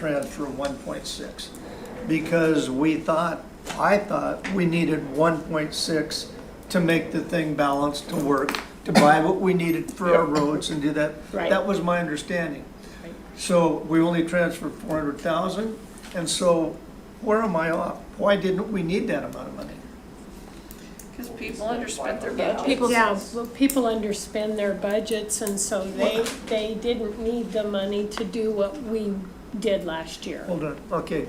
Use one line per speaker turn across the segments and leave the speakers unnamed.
transfer one point six. Because we thought, I thought we needed one point six to make the thing balance to work, to buy what we needed for our roads and do that.
Right.
That was my understanding.
Right.
So we only transferred four hundred thousand, and so where am I off? Why didn't we need that amount of money?
Because people underspent their budget.
People, yeah, well, people underspend their budgets, and so they, they didn't need the money to do what we did last year.
Hold on, okay.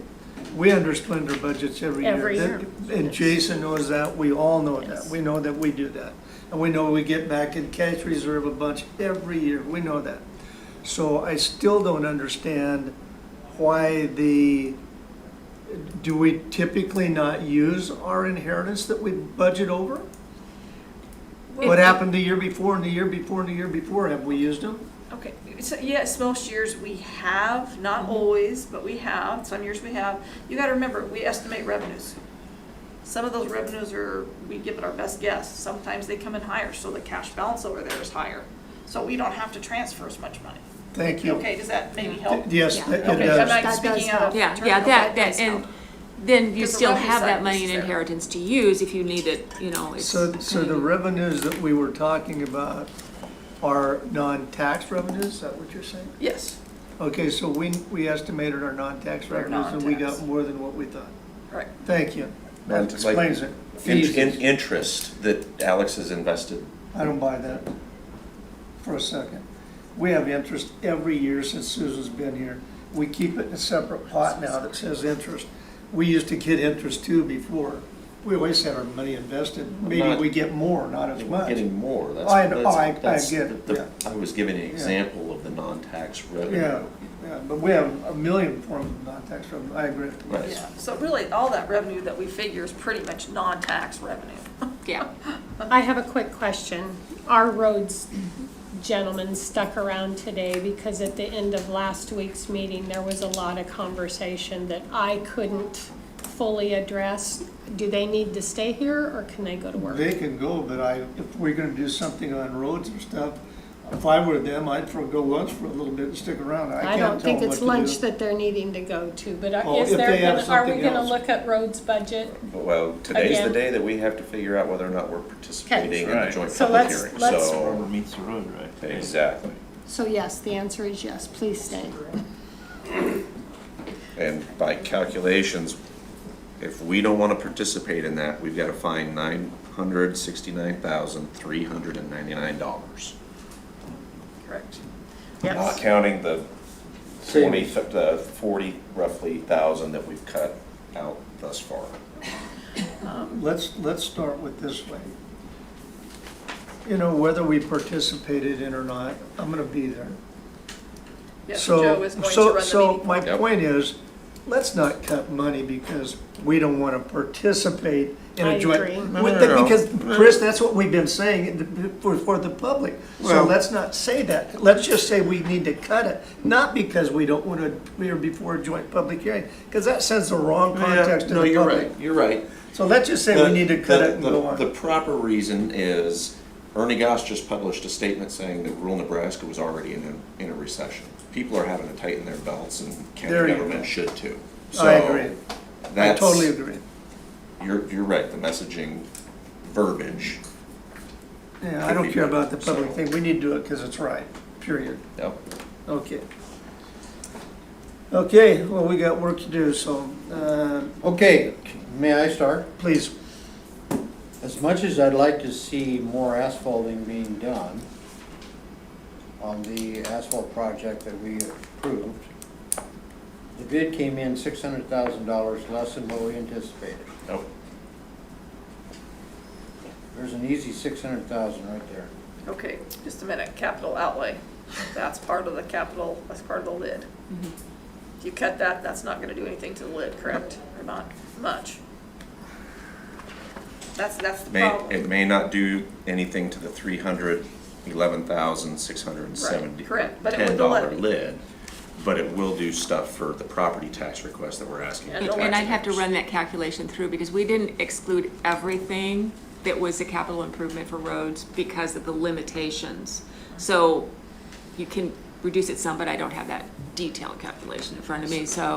We underspend our budgets every year.
Every year.
That- And Jason knows that, we all know that,
Yes.
we know that we do that. And we know we get back in cash reserve a bunch every year, we know that. So I still don't understand why the, do we typically not use our inheritance that we budget over? What happened the year before and the year before and the year before, have we used them?
Okay, so yes, most years we have,
Mm-hmm.
not always, but we have, some years we have. You gotta remember, we estimate revenues. Some of those revenues are, we give it our best guess, sometimes they come in higher, so the cash balance over there is higher. So we don't have to transfer as much money.
Thank you.
Okay, does that maybe help?
Yes,
Yeah.
it
Okay, I'm
does.
not
That does
speaking out of
help.
Yeah,
turn,
yeah,
but
that,
does
that,
help.
and then you
Because the
still
revenue
have
side
that
is
money in
there.
inheritance to use if you need it, you know, it's.
So, so the revenues that we were talking about are non-tax revenues, is that what you're saying?
Yes,
Okay, so we, we estimated our non-tax
They're
revenues and we got
non-tax.
more than what we thought.
right.
Thank you. That
Like- like-
explains it.
In,
Fees.
in interest that Alex has invested.
I don't buy that for a second. We have interest every year since Susan's been here. We keep it in a separate pot now that says interest. We used to get interest too before. We always had our money invested. Maybe
Not-
we get more, not as much.
Getting more, that's.
I-
that's-
I- I
that's
get it,
the-
yeah.
I was giving an example of the non-tax
Yeah,
revenue.
yeah, but we have a million forms of non-tax revenue, I agree.
Right.
Yeah, so really, all that revenue that we figure is pretty much non-tax revenue.
Yeah,
I have a quick question. Our roads gentlemen stuck around today because at the end of last week's meeting, there was a lot of conversation that I couldn't fully address. Do they need to stay here, or can they go to work?
They can go, but I, if we're gonna do something on roads and stuff, if I were them, I'd forego lunch for a little bit and stick around. I
I
can't
don't
tell
think
them
it's
what to
lunch
do.
that they're needing to go to, but
Oh,
are- is
if
there,
they have
gonna- are we
something
gonna
else.
look at roads budget?
But, Well, today's the
Again.
day that we have to figure out whether or not we're participating in the
Right.
joint
So
public
let's-
hearing,
let's-
so.
meets the road, right?
Exactly,
So yes, the answer is yes, please stay.
and by calculations, if we don't wanna participate in that, we've gotta find nine hundred sixty-nine thousand three hundred and ninety-nine dollars.
Correct.
Not counting the twenty, the forty roughly thousand that we've cut out thus far.
Let's, let's start with this way. You know, whether we participated in or not, I'm gonna be there.
Yes, Joe
So,
is going to run
so,
the
so
meeting.
my
Yep.
point is, let's not cut money because we don't want to participate in
I
a joint.
agree.
with
No, no,
the-
no, no.
Because, Chris, that's what we've been saying the- for, for the public. So
Well-
let's not say that. Let's just say we need to cut it, not because we don't want to appear before a joint public hearing, because that sends the wrong context to
No,
the
you're
public.
right, you're right.
So let's just say we
The-
need to cut
the-
it and
the-
go on.
The proper reason is Ernie Goss just published a statement saying that rural Nebraska was already in a, in a recession. People are having to tighten their belts and
There
county
you
government
go.
should too.
I
So
agree. I
that's-
totally agree.
You're, you're right, the messaging verbiage,
Yeah, I
Could
don't
be
care
better,
about the public
so-
thing. We need to do it because it's right, period.
yep.
Okay. Okay, well, we got work to do, so, uh,
Okay, may I start?
please,
As much as I'd like to see more asphalting being done on the asphalt project that we approved, the bid came in six hundred thousand dollars less than what we anticipated.
Nope.
There's an easy six hundred thousand right there.
Okay, just a minute, capital outlay, that's part of the capital, that's part of the lid.
Mm-hmm.
If you cut that, that's not gonna do anything to the lid, correct, or not much? That's, that's the
May,
problem.
it may not do anything to the three hundred eleven thousand six hundred and seventy.
Right, correct, but it
Ten
would delay.
dollar lid, but it will do stuff for the property tax request that we're asking.
Yeah,
the
don't-
and I'd have to
taxpayers.
run that calculation through because we didn't exclude everything that was a capital improvement for roads because of the limitations. So you can reduce it some, but I don't have that detailed calculation in front of me, so